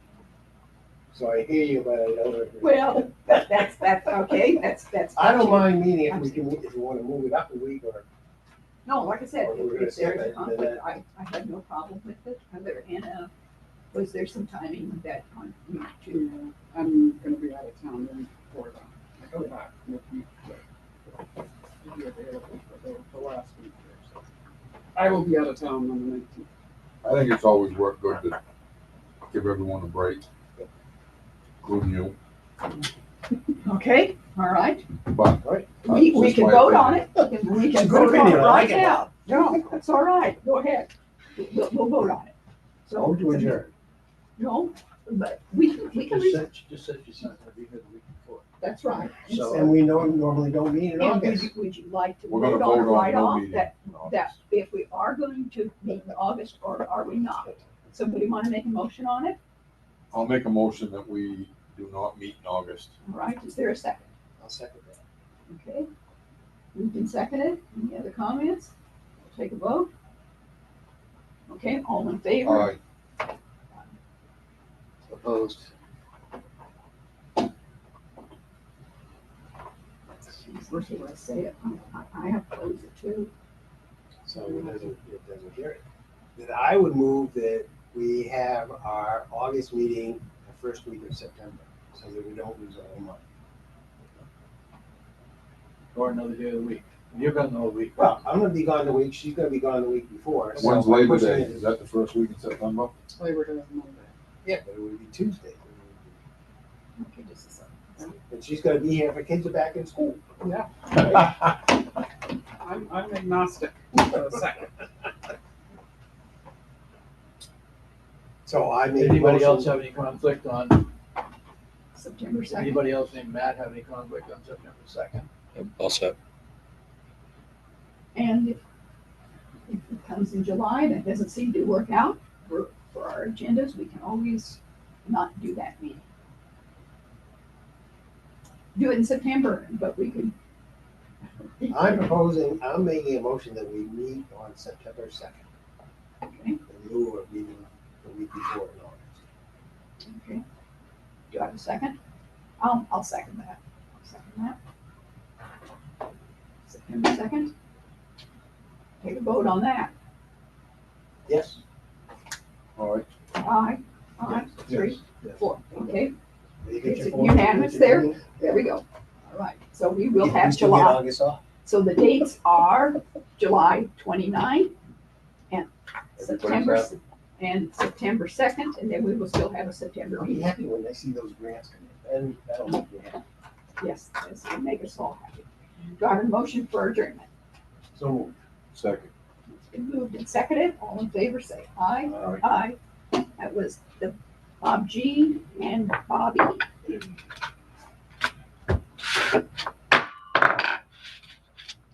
So I hear you, but I don't agree. Well, that- that's, that's, okay, that's, that's. I don't mind meeting if we can, if you wanna move it up a week or, No, like I said, Well, we're if gonna if there's a step into conflict, that. I, I have no problem with it. On the other hand, uh, was there some timing that on, to, I'm gonna be out of town in Florida. I go back next week, but I'll be available for the, the last week or so. I will be out of town on the nineteenth. I think it's always worked good to give everyone a break, including you. Okay, all right. But All right. We, That's we just can my vote on it. We can Good vote on it opinion, I right like it. now. No, that's all right. Go ahead. We'll, we'll vote on it. So. Vote to adjourn. No, but we can, we can, Just re- said, just said she's not gonna be here the week before. that's right. So- And we know, normally don't meet in And would you, August. would you like to We're gonna vote on it vote on right no off meeting that, in August. that if we are going to meet in August or are we not? Somebody wanna make a motion on it? I'll make a motion that we do not meet in August. All right, is there a second? I'll second that. Okay. Moved and seconded. Any other comments? Take a vote. Okay, all in All favor? right, Opposed? Jeez, Where should I say it? I- I, I have closed it too. So it doesn't, it doesn't carry. Then I would move that we have our August meeting the first week of September, so that we don't lose a whole month. Or another day of the week. You're gone the whole week. Well, I'm gonna be gone the week, she's gonna be gone the week before. so when's Labor pushing Day? it- Is that the first week in September? Labor Day Monday. Yeah, but it would be Tuesday. Okay, just a second. And she's gonna be here if her kids are back in school. Yeah. I'm, I'm agnostic for a second. So I made. a Anybody motion- else have any conflict on, September second. anybody else named Matt have any conflict on September second? All set. And if if it comes in July, that doesn't seem to work out for, for our agendas, we can always not do that meeting. Do it in September, but we could. I'm proposing, I'm making a motion that we meet on September second, Okay, in lieu of meeting the week before in August. okay. Do I have a second? Um, I'll second that. I'll Second that. September second. Take a vote on that. Yes? All right, Aye, aye, three, Yes. four, okay? You get your It's form, unanimous you get your there. meeting. There we go. All right, so we will You have still get July. August off? So the dates are July 29th and September, happy. and September 2nd, and then we will still have a September I'll be meeting. happy when I see those grants come in, and that'll make me happy. Yes, this will make us all happy. Do I have a motion for adjournment? So moved. second. It's been moved and seconded. All in favor, say aye. All right. Aye. That was the Bob G and Bobby